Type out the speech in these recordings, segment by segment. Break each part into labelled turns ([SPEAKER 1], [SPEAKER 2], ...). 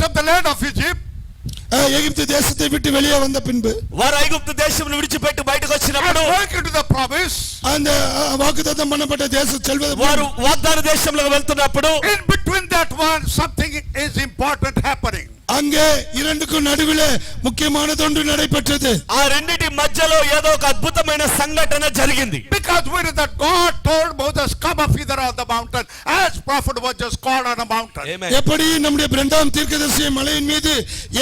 [SPEAKER 1] land of Egypt,
[SPEAKER 2] அஹ், எகிப்து தேசத்தை விட்டு வெளியே வந்த பின்பு
[SPEAKER 3] వారు ఐగుప్తు దేశం విడిచిపెట్టి బయటకు
[SPEAKER 1] and
[SPEAKER 3] వచ్చినప్పుడు
[SPEAKER 1] going into the promise,
[SPEAKER 2] அந்த அஹ், வாக்குத்தத்தம் பண்ணப்பட்ட தேசம் செல்வது
[SPEAKER 3] వారు వాగ్దాన దేశంలోకి వెళ్తున్నప్పుడు
[SPEAKER 1] in between that one, something is important happening.
[SPEAKER 2] அங்கே இரண்டுக்கும் நடுவிலே முக்கியமானதொன்று நடைபெற்றது
[SPEAKER 3] ఆ రెండిటి మధ్యలో ఏదో ఒక అద్భుతమైన సంఘటన జరిగింది
[SPEAKER 1] Because we know that God told Moses, come up hither on the mountain, as prophet was just called on a mountain.
[SPEAKER 2] எப்படி நம்முடைய இரண்டாம் தீர்க்கதரிசியை மலையின் மீது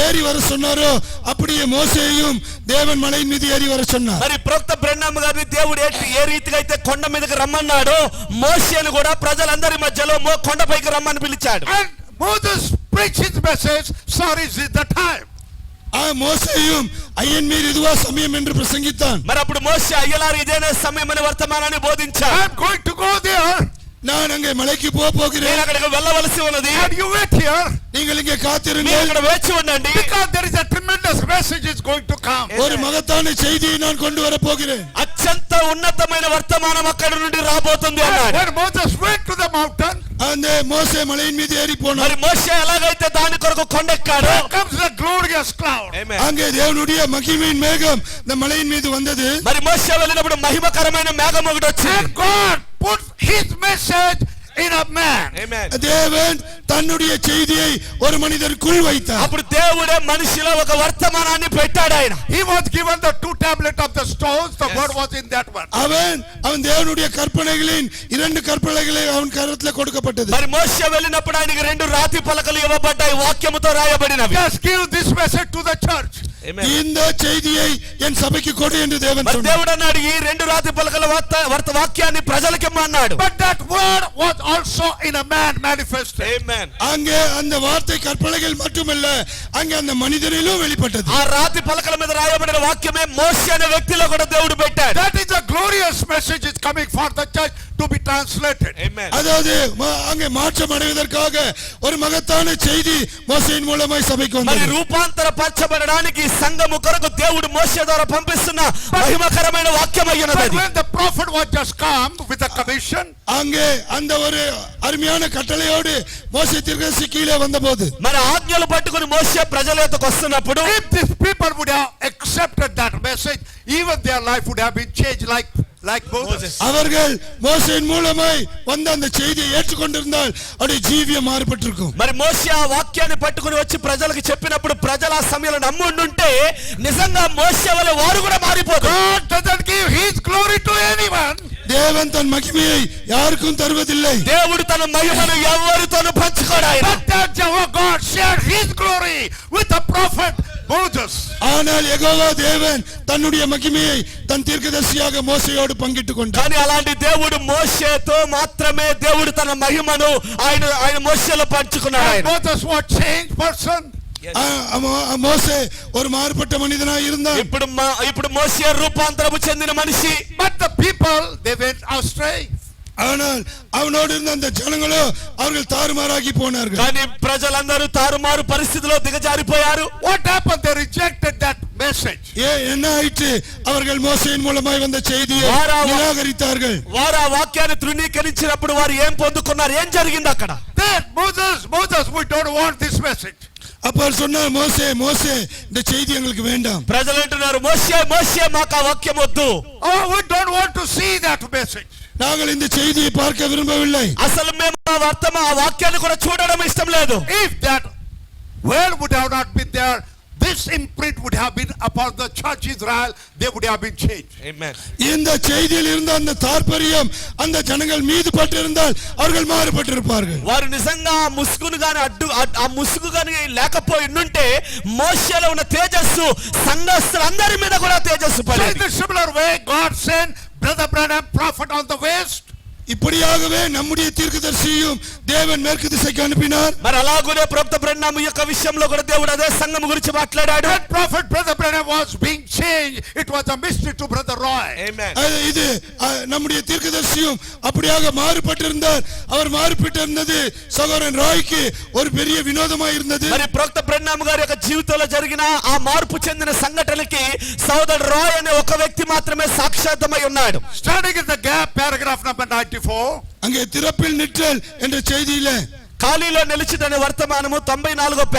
[SPEAKER 2] ஏறி வர சொன்னாரோ அப்படியே மோசேயும் தேவன் மலையின் மீது ஏறி வர சொன்னார்
[SPEAKER 3] మరి ప్రొక్త బ్రహ్మ గారిని దేవుడు ఏ- ఏ రీతిగా అయితే కొండ మీదకి రమ్మన్నాడో మోషేను కూడా ప్రజలందరి మధ్యలో మో కొండపైకి రమ్మని పిలిచాడు
[SPEAKER 1] And Moses preached his message, sorry, this is the time.
[SPEAKER 2] ஆ, மோசேயும் ஐயன் மீது இதுவா சமயம் என்று பிரசங்கித்தான்
[SPEAKER 3] మరి అప్పుడు మోషే అయ్యలారు ఇదేనే సమయం అనే వర్తమానాన్ని బోధించాడు
[SPEAKER 1] I'm going to go there,
[SPEAKER 2] நான் அங்கே மலைக்கு போக
[SPEAKER 3] నేను
[SPEAKER 2] போகிறேன்
[SPEAKER 3] అక్కడికి వెళ్ళవలసి ఉన్నది
[SPEAKER 1] and you wait here,
[SPEAKER 2] நீங்கள் இங்கே
[SPEAKER 3] మీరు
[SPEAKER 2] காத்திருங்கள்
[SPEAKER 3] అక్కడ వేచి ఉండండి
[SPEAKER 1] because there is a tremendous message is going to come.
[SPEAKER 2] ஒரு மகத்தான செய்தியை நான் கொண்டு வர போகிறேன்
[SPEAKER 3] అత్యంత ఉన్నతమైన వర్తమానం అక్కడ నుండి రాబోతుంది
[SPEAKER 1] And
[SPEAKER 3] అన్నాడు
[SPEAKER 1] when Moses went to the mountain,
[SPEAKER 2] அந்த மோசே மலையின் மீது ஏறி போனார்
[SPEAKER 3] మరి మోషే ఎలాగైతే దాని కొరకు కొండెక్కాడో
[SPEAKER 1] there comes the glorious cloud.
[SPEAKER 2] அங்கே தேவனுடைய மகிமையின் மேகம் இந்த மலையின் மீது வந்தது
[SPEAKER 3] మరి మోషే వెళ్ళినప్పుడు మహిమకరమైన మేఘం ఒకటి వచ్చింది
[SPEAKER 1] And God put his message in a man.
[SPEAKER 2] தேவன் தன்னுடைய செய்தியை ஒரு மனிதருக்குள் வைத்தார்
[SPEAKER 3] అప్పుడు దేవుడే మనిషిలో ఒక వర్తమానాన్ని పెట్టాడు ఆయన
[SPEAKER 1] He was given the two tablet of the stones, the word was in that one.
[SPEAKER 2] அவன் அவன் தேவனுடைய கற்பனைகளின் இரண்டு கற்பனைகளை அவன் கரத்தில் கொடுக்கப்பட்டது
[SPEAKER 3] మరి మోషే వెళ్ళినప్పుడు ఆయనకి రెండు రాతి పలకలు ఇవ్వబడ్డాయి వాక్యముతో రాయబడినవి
[SPEAKER 1] Just give this message to the church.
[SPEAKER 2] இந்த செய்தியை என் சபைக்கு கொடு என்று தேவன்
[SPEAKER 3] మరి
[SPEAKER 2] சொன்னார்
[SPEAKER 3] దేవుడు అన్నాడు ఈ రెండు రాతి పలకల వార్త- వర్త- వాక్యాన్ని ప్రజలకి ఇమ్మన్నాడు
[SPEAKER 1] But that word was also in a man manifested.
[SPEAKER 2] அங்கே அந்த வார்த்தை கற்பனைகள் மட்டுமல்ல அங்கே அந்த மனிதனிலும் வெளிப்பட்டது
[SPEAKER 3] ఆ రాతి పలకల మీద రాయబడిన వాక్యమే మోషే అనే వ్యక్తిలో కూడా దేవుడు పెట్టాడు
[SPEAKER 1] That is a glorious message is coming for the church to be translated.
[SPEAKER 2] அதாவது ம- அங்கே மாற்றம் அடைவதற்காக ஒரு மகத்தான செய்தி மோசையின் மூலமாய் சபைக்கு
[SPEAKER 3] మరి
[SPEAKER 2] வந்தது
[SPEAKER 3] రూపాంతర పరచబడడానికి సంఘము కొరకు దేవుడు మోషే ద్వారా పంపిస్తున్న మహిమకరమైన వాక్యం అయ్యున్నది
[SPEAKER 1] But
[SPEAKER 3] అది.
[SPEAKER 1] when the prophet was just come with a commission,
[SPEAKER 2] அங்கே அந்த ஒரு அருமையான கட்டளையோடு மோசை தீர்க்கதரிசி கீழே வந்தபோது
[SPEAKER 3] మరి ఆజ్ఞలు పట్టుకుని మోసే ప్రజల యొక్కకు వస్తున్నప్పుడు
[SPEAKER 1] if these people would have accepted that message, even their life would have been changed like, like Moses.
[SPEAKER 2] அவர்கள் மோசையின் மூலமாய் வந்த அந்த செய்தியை ஏற்றுக்கொண்டிருந்தால் அவருடைய ஜீவியம் மாறுபட்டிருக்கும்
[SPEAKER 3] మరి మోసే ఆ వాక్యాన్ని పట్టుకుని వచ్చి ప్రజలకు చెప్పినప్పుడు ప్రజలు ఆ సమయంలో నమ్ముండుంటే నిజంగా మోసే వల్ల వారు కూడా మారిపోతారు
[SPEAKER 1] God doesn't give his glory to anyone.
[SPEAKER 2] தேவன் தன் மகிமையை யாருக்கும் தருவதில்லை
[SPEAKER 3] దేవుడు తన మహిమను ఎవరితోనూ పంచుకోడు ఆయన
[SPEAKER 1] But that Jehovah God shared his glory with the prophet Moses.
[SPEAKER 2] ஆனால் யெகோவா தேவன் தன்னுடைய மகிமையை தன் தீர்க்கதரிசியாக மோசையோடு பங்கிட்டுக் கொண்டார்
[SPEAKER 3] కానీ అలాంటి దేవుడు మోసేతో మాత్రమే దేవుడు తన మహిమను ఆయన ఆయన మోసేలో పంచుకున్నాడు
[SPEAKER 1] And
[SPEAKER 3] ఆయన
[SPEAKER 1] Moses was changed person.
[SPEAKER 2] ஆ, ஆமா, மோசே ஒரு மாறுபட்ட மனிதனாய் இருந்தான்
[SPEAKER 3] ఇప్పుడు మా- ఇప్పుడు మోసే రూపాంతరము చెందిన మనిషి
[SPEAKER 1] But the people, they went astray.
[SPEAKER 2] ஆனால் அவனோடு இருந்த அந்த ஜனங்களோ அவர்கள் தாறுமாறாகி போனார்கள்
[SPEAKER 3] కానీ ప్రజలందరూ తారుమారు పరిస్థితిలో దిగజారిపోయారు
[SPEAKER 1] What happened? They rejected that message.
[SPEAKER 2] ஏ என்ன ஆயிற்று அவர்கள் மோசையின் மூலமாய் வந்த செய்தியை
[SPEAKER 3] வாராவா-
[SPEAKER 2] நிராகரித்தார்கள்
[SPEAKER 3] వారు ఆ వాక్యాన్ని తృణీకరించినప్పుడు వారు ఏం పొందుకున్నారు ఏం జరిగింది అక్కడ
[SPEAKER 1] Then Moses, Moses, we don't want this message.
[SPEAKER 2] அப்ப அவர் சொன்னார் மோசே மோசே இந்த செய்தி எங்களுக்கு வேண்டாம்
[SPEAKER 3] ప్రజలు అంటున్నారు మోసే మోసే మాకు ఆ వాక్యం వద్దు
[SPEAKER 1] Oh, we don't want to see that message.
[SPEAKER 2] நாங்கள் இந்த செய்தியை பார்க்க విரும்பவில்லை
[SPEAKER 3] అసలు మేము ఆ వర్తమ ఆ వాక్యాన్ని కూడా చూడడం ఇష్టం లేదు
[SPEAKER 1] If that well would have not been there, this imprint would have been upon the church Israel, they would have been changed.
[SPEAKER 2] இந்த செய்தியில் இருந்த அந்த தாற்பரியம் அந்த ஜனங்கள் மீது பட்டிருந்தால் அவர்கள் மாறுபட்டிருப்பார்கள்
[SPEAKER 3] వారు నిజంగా ఆ ముసుగును గాని అడ్డు అడ్- ఆ ముసుగు గాని లేకపోయి ఉంటే మోసలో ఉన్న తేజస్సు సంఘస్థులందరి మీద కూడా తేజస్సు
[SPEAKER 1] So in
[SPEAKER 3] పడేది
[SPEAKER 1] the similar way, God sent Brother Branham prophet on the west.
[SPEAKER 2] இப்படியாகவே நம்முடைய தீர்க்கதரிசியும் தேவன் மேற்கு திசைக்கு அனுப்பினார்
[SPEAKER 3] మరి అలాగునే ప్రభుత్వ బ్రహ్మ యొక్క విషయంలో కూడా దేవుడు అదే సంఘం గురించి మాట్లాడాడు
[SPEAKER 1] That prophet Brother Branham was being changed. It was a mystery to Brother Roy.
[SPEAKER 2] அது இது அஹ், நம்முடைய தீர்க்கதரிசியும் அப்படியாக மாறுபட்டிருந்தார் அவர் மாறுபட்டிருந்தது சகோதரன் ராய்க்கு ஒரு பெரிய வினோதமாய் இருந்தது
[SPEAKER 3] మరి ప్రొక్త బ్రహ్మ గారి యొక్క జీవితంలో జరిగిన ఆ మార్పు చెందిన సంఘటనకి సోదరుడు రాయ్ అనే ఒక వ్యక్తి మాత్రమే సాక్షాత్మై ఉన్నాడు
[SPEAKER 1] Standing in the gap, paragraph number 94.
[SPEAKER 2] அங்கே திறப்பில் நிற்றல் என்ற செய்தியில
[SPEAKER 3] ఖాళీలో నిలిచిదనే వర్తమానము తొంభై నాలుగో